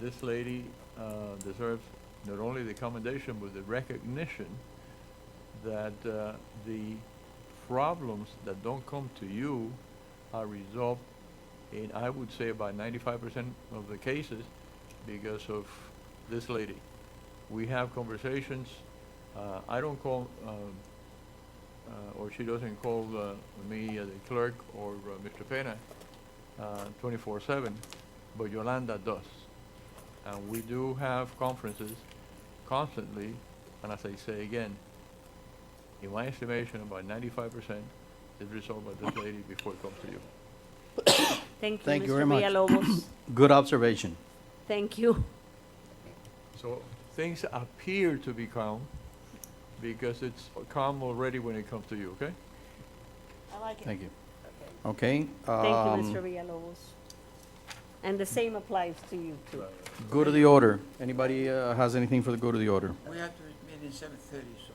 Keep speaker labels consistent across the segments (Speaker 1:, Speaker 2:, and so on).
Speaker 1: this lady uh, deserves not only the commendation, but the recognition that uh, the problems that don't come to you are resolved in, I would say, about ninety-five percent of the cases because of this lady. We have conversations, uh, I don't call, um, uh, or she doesn't call uh, me, uh, the clerk, or uh, Mr. Pena, twenty-four-seven, but Yolanda does. And we do have conferences constantly, and as I say again, in my estimation, about ninety-five percent is resolved by this lady before it comes to you.
Speaker 2: Thank you,
Speaker 3: Thank you very
Speaker 2: Mr.
Speaker 3: much.
Speaker 2: Villalobos.
Speaker 3: Good observation.
Speaker 2: Thank you.
Speaker 1: So things appear to be calm because it's calm already when it comes to you, okay?
Speaker 4: I like it.
Speaker 3: Thank you. Okay.
Speaker 2: Thank
Speaker 3: um,
Speaker 2: you, Mr. Villalobos. And the same applies to you too.
Speaker 3: Go to the order. Anybody uh, has anything for the go to the order?
Speaker 5: We have to meet in seven thirty, so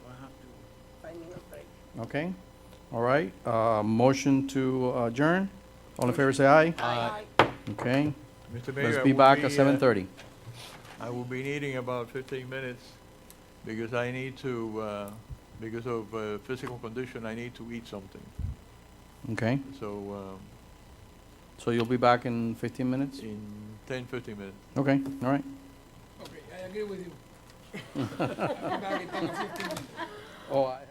Speaker 5: I have to,
Speaker 3: Okay. All right. Uh, Motion to adjourn. All in favor, say aye.
Speaker 4: Aye.
Speaker 3: Okay.
Speaker 1: Mr. Mayor,
Speaker 3: Let's
Speaker 1: I
Speaker 3: be
Speaker 1: will
Speaker 3: back
Speaker 1: be,
Speaker 3: at
Speaker 1: uh,
Speaker 3: 7:30.
Speaker 1: I will be needing about fifteen minutes because I need to, uh, because of uh, physical condition, I need to eat something.
Speaker 3: Okay.
Speaker 1: So um,
Speaker 3: So you'll be back in 15 minutes?
Speaker 1: in ten, fifteen minutes.
Speaker 3: Okay. All right.
Speaker 5: okay, I agree with you. Come back and take a fifteen minute.
Speaker 3: Oh, I.